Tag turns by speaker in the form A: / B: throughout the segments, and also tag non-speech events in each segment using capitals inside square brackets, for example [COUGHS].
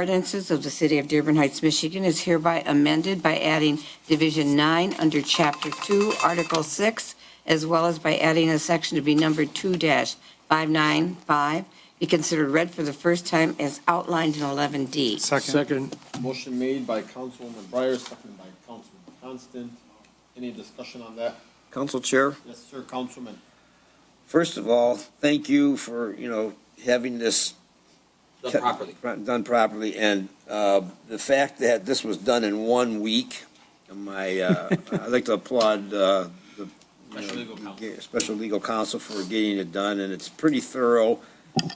A: Ordinances of the City of Dearborn Heights, Michigan is hereby amended by adding Division 9 under Chapter 2, Article 6, as well as by adding a section to be numbered 2-595, be considered read for the first time as outlined in 11D.
B: Second.
C: Motion made by Councilwoman Breyer, seconded by Councilman Constant. Any discussion on that?
D: Council Chair,
C: Yes, sir, Councilman.
D: first of all, thank you for, you know, having this.
C: Done properly.
D: Done properly, and uh, the fact that this was done in one week, my, uh, [LAUGHS] I'd like to applaud uh, the. you know,
C: Special legal counsel.
D: ge- Special legal counsel for getting it done, and it's pretty thorough.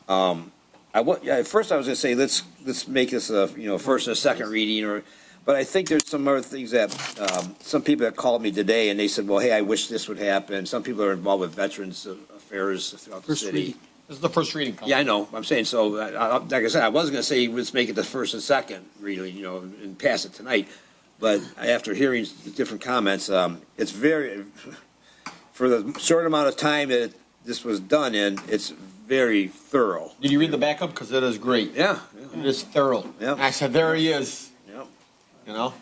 D: Um, I wa, yeah, at first I was gonna say, let's, let's make this a, you know, first and a second reading, or, but I think there's some other things that, um, some people that called me today and they said, well, hey, I wish this would happen. Some people are involved with veterans affairs throughout the
B: First
D: city.
B: reading.
C: This is the first reading,
D: Yeah, I
C: Councilman.
D: know, I'm saying, so, I- I- like I said, I was gonna say, let's make it the first and second reading, you know, and pass it tonight. But after hearing the different comments, um, it's very, for the short amount of time that this was done in, it's very thorough.
C: Did you read the backup? Because it is great.
D: Yeah, yeah.
C: It is thorough.
D: Yep.
C: I said, there he is,
D: Yep.
C: you know?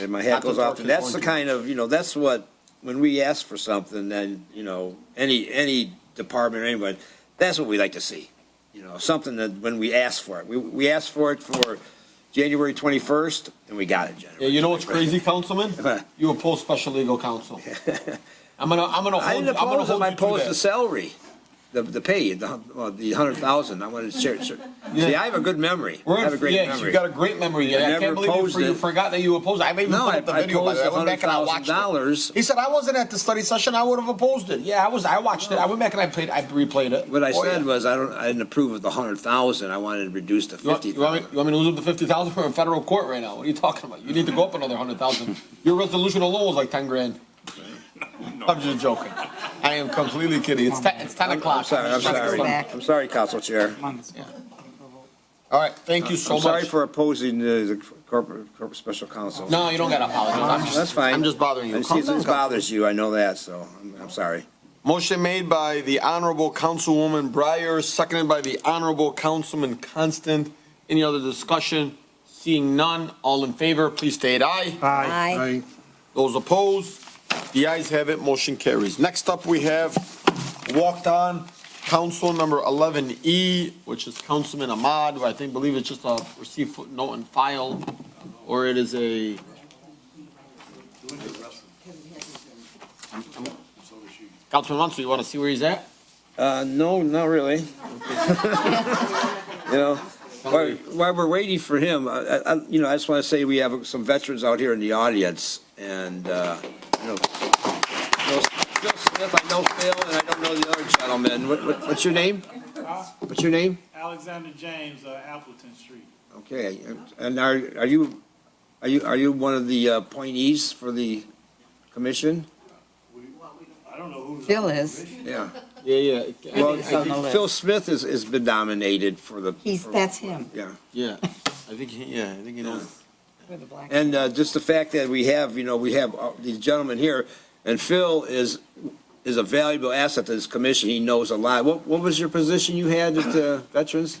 D: And my hat goes off, and that's the kind of, you know, that's what, when we ask for something, then, you know, any, any department or anyone, that's what we like to see. You know, something that, when we ask for it, we, we asked for it for January twenty-first, and we got it,
C: Yeah,
D: January.
C: you know what's crazy,
D: [LAUGHS]
C: Councilman? You oppose special legal counsel. I'm gonna, I'm gonna
D: I
C: hold,
D: didn't
C: you- I'm gonna
D: oppose
C: hold
D: them, I
C: you to
D: opposed the
C: that.
D: salary, the, the pay, the, well, the hundred thousand, I wanted to share, share. See, I have a good memory,
C: We're
D: I have a
C: in-
D: great
C: yeah, you
D: memory.
C: got a great memory.
D: I
C: I
D: never
C: can't believe
D: opposed
C: you- you
D: it.
C: forgot that you opposed. I even
D: No,
C: put
D: I,
C: up the
D: I
C: video. by the way.
D: opposed
C: I
D: the
C: went
D: hundred
C: back and I
D: thousand
C: watched it.
D: dollars,
C: He said, I wasn't at the study session, I would have opposed it. Yeah, I was, I watched it, I went back and I played, I replayed it.
D: what I
C: Oh, yeah.
D: said was, I don't, I didn't approve of the hundred thousand, I wanted to reduce to
C: You want,
D: fifty
C: you want me,
D: thousand.
C: you want me to lose up to fifty thousand for a federal court right now? What are you talking about? You need to go up another hundred thousand. Your resolution alone was like ten grand. I'm just joking. I am completely kidding. It's ten, it's ten o'clock.
D: I'm sorry, I'm
C: Let's go
D: sorry.
C: back.
D: I'm sorry, Council Chair.
C: All right, thank you so
D: I'm sorry
C: much.
D: for opposing the the corporate, corporate special counsel.
C: No, you don't gotta apologize. I'm just-
D: That's fine.
C: I'm just bothering you.
D: I
C: Calm
D: see this
C: down, Council.
D: bothers you, I know that, so I'm, I'm sorry.
C: Motion made by the Honorable Councilwoman Breyer, seconded by the Honorable Councilman Constant. Any other discussion? Seeing none, all in favor, please state aye.
A: Aye.
C: Those opposed, the ayes have it, motion carries. Next up, we have walked on council number 11E, which is Councilman Ahmad, who I think, believe it's just a receive footnote and file, or it is a. Councilman Mansur, you want to see where he's at?
D: Uh, no, not really. You know, while, while we're waiting for him, I, I, I- you know, I just want to say we have some veterans out here in the audience, and, uh, you know, Bill Bill Smith, I know Phil, and I don't know the other gentleman. What, what- what's your name? What's your name?
E: Alexander James, uh, Appleton Street.
D: Okay, and are, are you, are you, are you one of the uh, appointees for the commission?
E: I don't know who's. on
A: Bill
E: the
A: is.
E: commission.
D: Yeah.
C: Yeah,
D: Well,
A: it's on the list.
D: Phil Smith has, has been nominated for the.
A: He's,
D: for-
A: that's him.
D: Yeah,
C: Yeah, I think, he- yeah, I think he knows.
A: We're the black-
D: and uh, just the fact that we have, you know, we have uh, these gentlemen here, and Phil is, is a valuable asset to this commission, he knows a lot. What, what was your position you had
C: [COUGHS]
D: at uh, Veterans?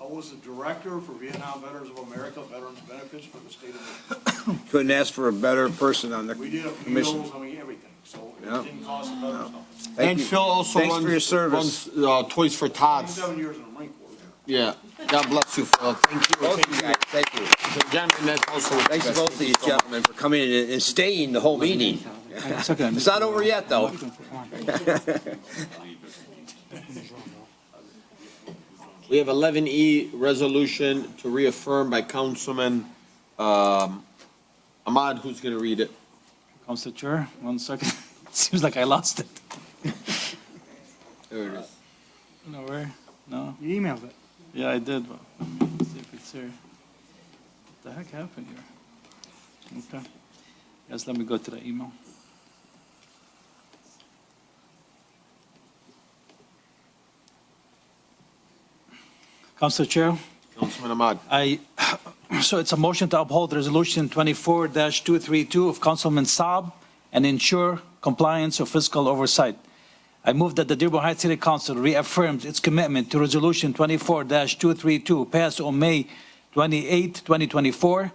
E: I was the director for Vietnam Veterans of America, Veterans Benefits for the state of Michigan.
D: Couldn't ask for a better person on the
E: We did
D: commission.
E: appeals, I mean, everything, so it
D: Yeah.
E: didn't cost the veterans nothing.
D: Thank
C: And
D: you.
C: Phil also runs.
D: Thanks for your service.
C: runs, uh, Toys for Tots.
E: Twenty-seven years in the Marine Corps.
C: Yeah, God bless you, Phil. Thank you.
D: Both of you guys, thank you.
C: Gentlemen, that's also.
D: Thanks to both of these gentlemen for coming in and staying the whole meeting. It's not over yet, though.
C: We have eleven E, resolution to reaffirm by Councilman, um, Ahmad, who's gonna read it?
F: Council Chair, one second. [LAUGHS] Seems like I lost it.
C: There it is.
F: No, where? No?
E: You emailed it.
F: Yeah, I did. but Let me see if it's here. What the heck happened here? Okay. Yes, let me go to the email. Council Chair,
C: Councilman Ahmad.
F: I, [CLEARS THROAT] so it's a motion to uphold Resolution 24-232 of Councilman Saab and ensure compliance of fiscal oversight. I move that the Dearborn Heights City Council reaffirms its commitment to Resolution 24-232 passed on May 28, 2024,